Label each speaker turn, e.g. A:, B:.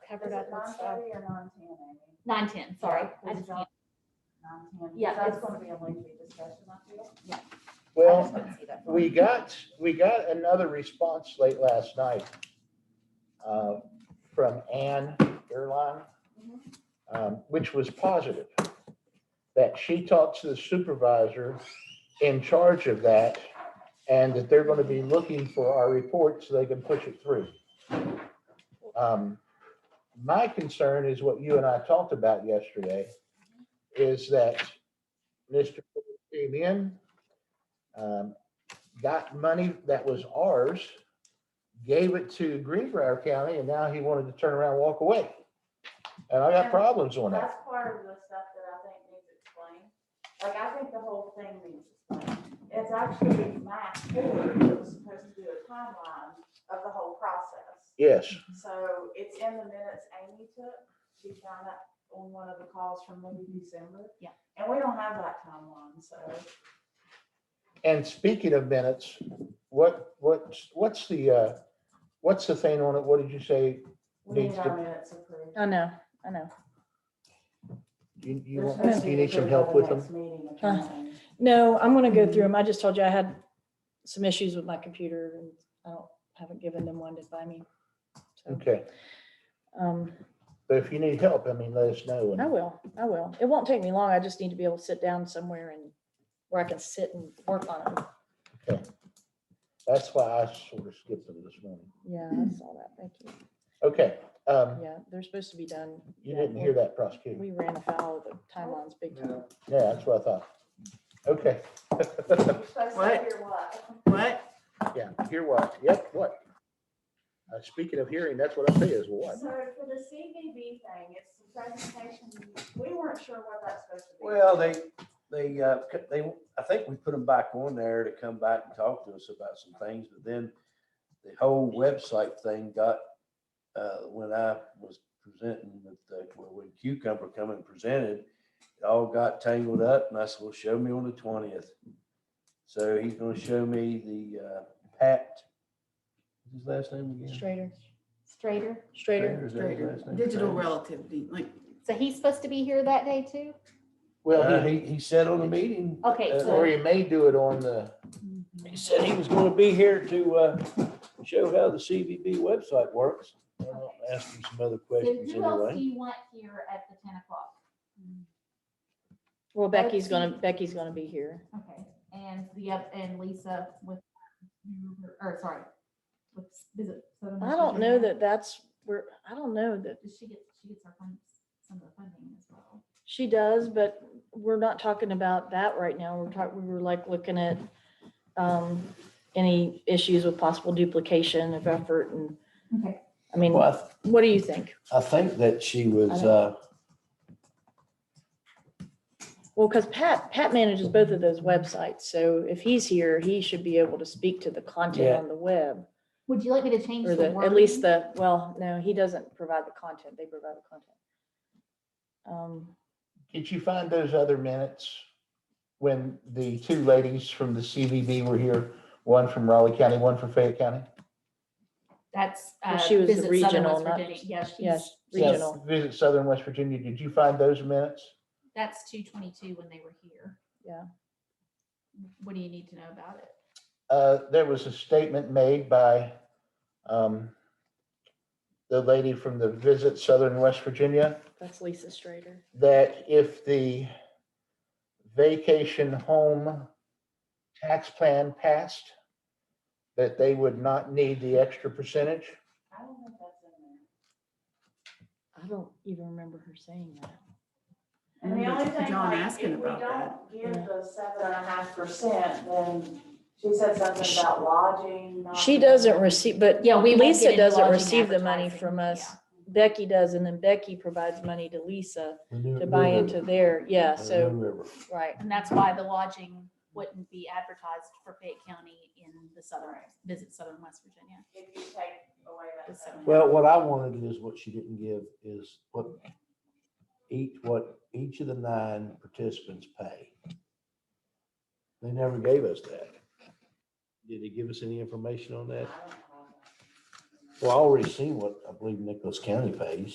A: covered up with stuff.
B: non-tanning or non-tanning?
C: Nine ten, sorry.
B: Yeah,
C: I
B: it's
C: just
B: not
C: can't-
B: Non-tanning,
C: Yeah,
B: that's
C: it's-
B: gonna be a lengthy discussion, I feel.
C: I just
D: Well,
C: couldn't see that.
D: we got, we got another response late last night uh, from Ann Erlon, um, which was positive. That she talked to the supervisor in charge of that and that they're going to be looking for our report so they can push it through. Um, My concern is what you and I talked about yesterday, is that Mr. came in, um, got money that was ours, gave it to Greenbrier County, and now he wanted to turn around and walk away. And I got problems on that.
B: That's part of the stuff that I think needs explained. Like, I think the whole thing needs explained. It's actually Matt Ford that was supposed to do a timeline of the whole process.
D: Yes,
B: So it's in the minutes Amy took. She found that on one of the calls from maybe December.
C: Yeah.
B: And we don't have that timeline, so.
D: and speaking of minutes, what, what's, what's the, uh, what's the thing on it? What did you say?
B: We need
D: Needs
B: our
D: to-
B: minutes approved.
A: I know, I know.
D: You, you
B: They're
D: want,
B: supposed to
D: you
B: be
D: need some
B: approved
D: help
B: by the
D: with them?
B: next meeting,
A: Huh.
B: apparently.
A: No, I'm gonna go through them. I just told you I had some issues with my computer and I don't, haven't given them one to buy me. So,
D: Okay,
A: um,
D: but if you need help, I mean, let us know.
A: I
D: and-
A: will, I will. It won't take me long. I just need to be able to sit down somewhere and where I can sit and work on them.
D: That's why I sort of skipped them this morning.
A: Yeah, I saw that. Thank you.
D: Okay, um,
A: Yeah, they're supposed to be done.
D: you
A: yeah,
D: didn't hear
A: we-
D: that prosecutor.
A: We ran afoul of the timelines big time.
D: Yeah, that's what I thought. Okay.
B: You're supposed to
D: What?
B: hear what?
E: What?
D: Yeah, hear what? Yep, what? Uh, speaking of hearing, that's what I say is what?
B: So for the CBB thing, it's the presentation, we weren't sure what that's supposed to be.
F: Well, they, they, uh, c- they, I think we put them back on there to come back and talk to us about some things, but then the whole website thing got, uh, when I was presenting with, the- well, when Cucumber come and presented, it all got tangled up and I said, well, show me on the twentieth. So he's gonna show me the, uh, Pat, what's his last name again?
A: Straighter,
C: Strater.
A: straighter.
F: Is that his last name?
E: Digital relativity, like,
C: So he's supposed to be here that day too?
F: Uh,
D: Well, he-
F: he, he said on the meeting.
C: Okay,
F: uh,
C: so-
D: or you may do it on the,
F: He said he was gonna be here to, uh, show how the CBB website works. I'll ask him some other
C: So
F: questions
C: who else do
F: anyway.
C: you want here at the ten o'clock?
A: Well, Becky's gonna, Becky's gonna be here.
C: Okay, and the, oth- and Lisa with, or sorry. with is it Southern
A: I don't know
C: Michigan?
A: that that's where, I don't know that
C: Does she get, she gets her funds, some of the funding as well?
A: She does, but we're not talking about that right now. We're talking, we were like looking at um, any issues with possible duplication of effort and,
C: Okay.
A: I mean,
F: Well, I th-
A: what do you think?
F: I think that she was,
A: I
F: uh,
A: Well, because Pat, Pat manages both of those websites, so if he's here, he should be able to speak to the content
F: Yeah.
A: on the web.
C: Would you like me to change
A: Or
C: the
A: the,
C: wording?
A: at least the, well, no, he doesn't provide the content. They provide the content. Um,
D: did you find those other minutes? When the two ladies from the CVB were here, one from Raleigh County, one from Fayette County?
C: That's.
A: Well,
C: uh,
A: she was the
C: Visit Southern
A: regional,
C: West
A: not-
C: Virginia. Yeah, she's,
A: Yes,
D: Yeah,
A: regional.
D: Visit Southern West Virginia, did you find those minutes?
C: that's two twenty-two when they were here.
A: Yeah.
C: What do you need to know about it?
D: Uh, there was a statement made by, um, the lady from the Visit Southern West Virginia.
A: That's Lisa Strader.
D: that if the vacation home tax plan passed, that they would not need the extra percentage.
B: I don't think that's in there.
A: I don't even remember her saying that.
E: I
B: And the
E: remember
B: only thing,
E: John
B: like, if
E: asking
B: we
E: about that.
B: don't give the seven and a half percent, then she said something about lodging. not
A: She
B: being-
A: doesn't receive, but
C: Yeah, we won't get
A: Lisa
C: into
A: doesn't
C: lodging
A: receive the money
C: advertising.
A: from us.
C: Yeah.
A: Becky does, and then Becky provides money to Lisa to buy
D: Mm-hmm.
A: into their, yeah, so, right.
C: And that's why the lodging wouldn't be advertised for Fayette County in the southern, visit Southern West Virginia.
B: If you take away that.
C: Just
B: seven.
C: so-
F: Well, what I wanted is what she didn't give is what each, what each of the nine participants pay. They never gave us that. Did they give us any information on
B: I
F: that?
B: don't have that.
F: Well, I already seen what I believe Nicholas County pays.